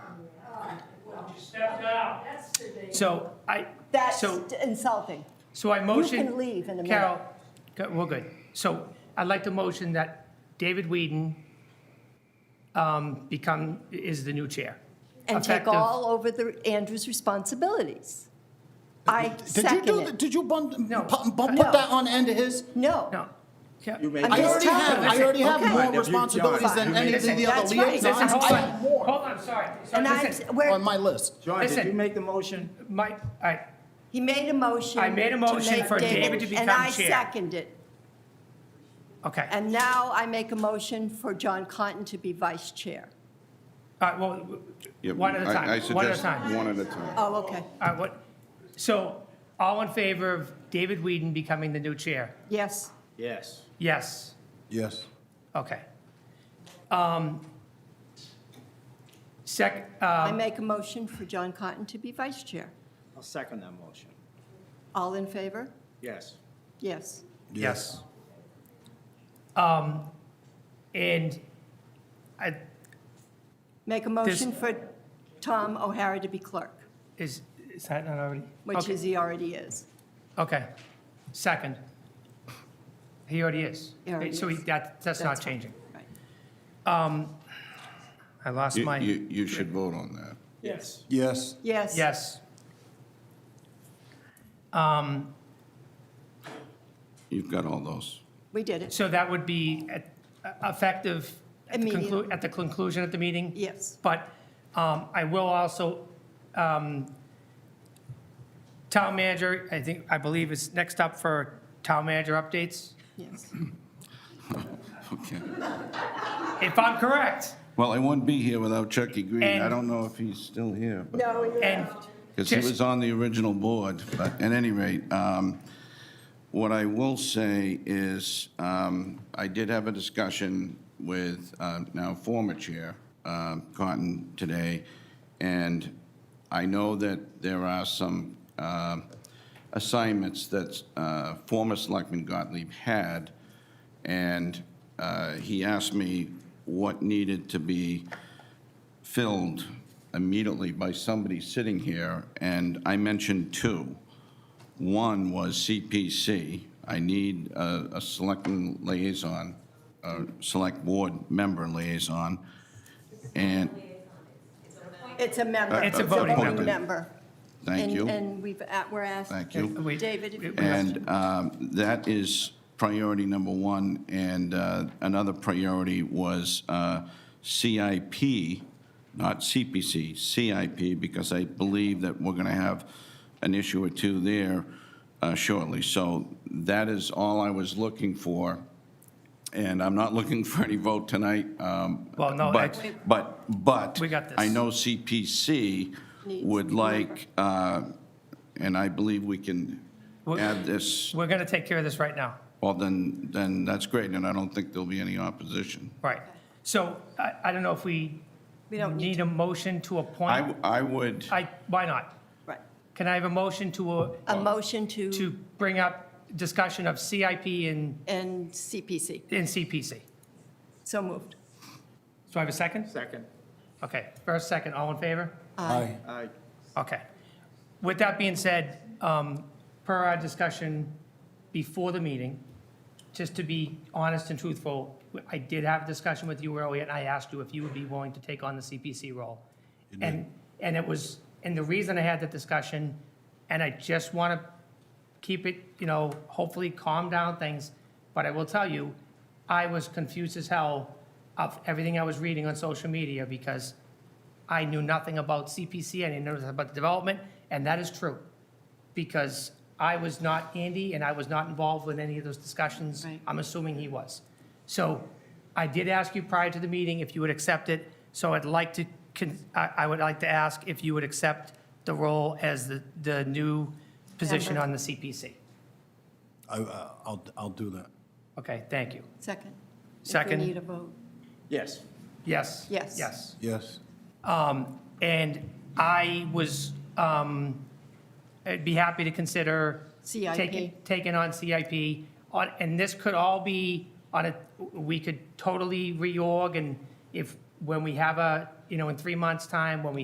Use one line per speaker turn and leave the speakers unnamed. you.
So I,
That's
so,
insulting.
so I motion.
can leave in a minute.
Carol, go- well, good. So I'd like to motion that David Whedon um, become, is the new chair.
And take
Effective-
all over the, Andrew's responsibilities. I
Did you
second
do, the-
it.
did you bump,
No.
pu- bump,
No.
put that on end of his?
No,
No. Yeah.
You may-
I'm
I
just
already
telling
have,
you.
I already have
Okay.
more
Fine, if you-
responsibilities
John,
than
you
any of
Listen,
the other
that's right.
liaisons.
Listen, hold
I
on,
have more
hold on, sorry. Sorry,
and I,
listen.
on
where,
my list.
John, did you
Listen.
make the motion?
My, all right,
he made a motion.
I made a
to
motion
make
for David to become
And I
chair.
second it.
okay. All
And now I make a motion for John Cotton to be vice chair.
right, well,
Yeah,
one at a
I- I
time, one at a
suggest
time.
One at a time.
Oh, okay.
All right, what, so all in favor of David Whedon becoming the new chair?
Yes.
Yes.
Yes,
Yes.
okay. Um, Sec, uh,
I make a motion for John Cotton to be vice chair.
I'll second that motion.
All in favor?
Yes.
Yes.
yes. Um, and I,
Make a motion for Tom O'Hara to be clerk,
is, is that not already?
which
Okay,
is, he already is.
Okay, second. He already is.
He already
So he,
is.
that, that's not
That's fine.
changing.
Right.
I lost
You-
my,
You, you should vote on that.
Yes.
Yes.
Yes.
yes.
You've got all those.
We did it.
So that would be at- effective at the conclu-
Immediate.
at the conclusion of the meeting?
Yes.
But um, I will also, um, town manager, I think, I believe is next up for town manager updates,
Yes.
Mm-hmm. Okay.
if I'm correct.
Well, I wouldn't be here without Chucky Green.
And-
I don't know if he's still here, but.
No,
And
Because he
Just-
was on the original board. But at any rate, um, what I will say is, um, I did have a discussion with um, now former Chair um, Cotton today, and I know that there are some um, assignments that uh, former Selectman Gottlieb had, and uh, he asked me what needed to be filled immediately by somebody sitting here, and I mentioned two. One was CPC. I need a, a selectman liaison, a select board member liaison, and,
It's a member.
It's a voting
member.
member.
thank
And-
you,
And we've, at- we're asked,
thank you.
we-
David, if you-
we-
And um, that is priority number one. And uh, another priority was uh, CIP, not CPC, CIP, because I believe that we're going to have an issue or two there uh, shortly. So that is all I was looking for. And I'm not looking for any vote tonight. um,
Well, no,
But,
I-
but, but.
We got this.
I know CPC
Needs
would
a
like, uh, and I believe we can
Well-
add this,
we're going to take care of this right now.
well, then, then that's great, and I don't think there'll be any opposition.
Right. So I, I don't know if we
we don't need,
need a motion to
I,
appoint.
w- I would,
I, why not?
right.
Can I have a motion to, uh,
A motion to,
to bring up discussion of CIP and,
and CPC.
and CPC?
So moved.
So I have a second?
Second.
Okay, first, second, all in favor?
Aye.
Aye.
Okay. With that being said, um, per our discussion before the meeting, just to be honest and truthful, I did have a discussion with you earlier, and I asked you if you would be willing to take on the CPC role. And, and it was, and the reason I had that discussion, and I just want to keep it, you know, hopefully calm down things, but I will tell you, I was confused as hell of everything I was reading on social media because I knew nothing about CPC, I didn't know nothing about the development, and that is true. Because I was not Andy, and I was not involved with any of those discussions.
Right.
I'm assuming he was. So I did ask you prior to the meeting if you would accept it, so I'd like to, con- I I would like to ask if you would accept the role as the, the new position
Member.
on the CPC.
I, I'll, I'll do that.
Okay, thank you.
Second.
Second.
If we need a vote.
Yes.
Yes?
Yes.
Yes.
Yes.
Um, And I was, um, I'd be happy to consider.
CIP.
taking- Taking on CIP, on- and this could all be on a, we could totally reorg, and if, when we have a, you know, in three months' time, when we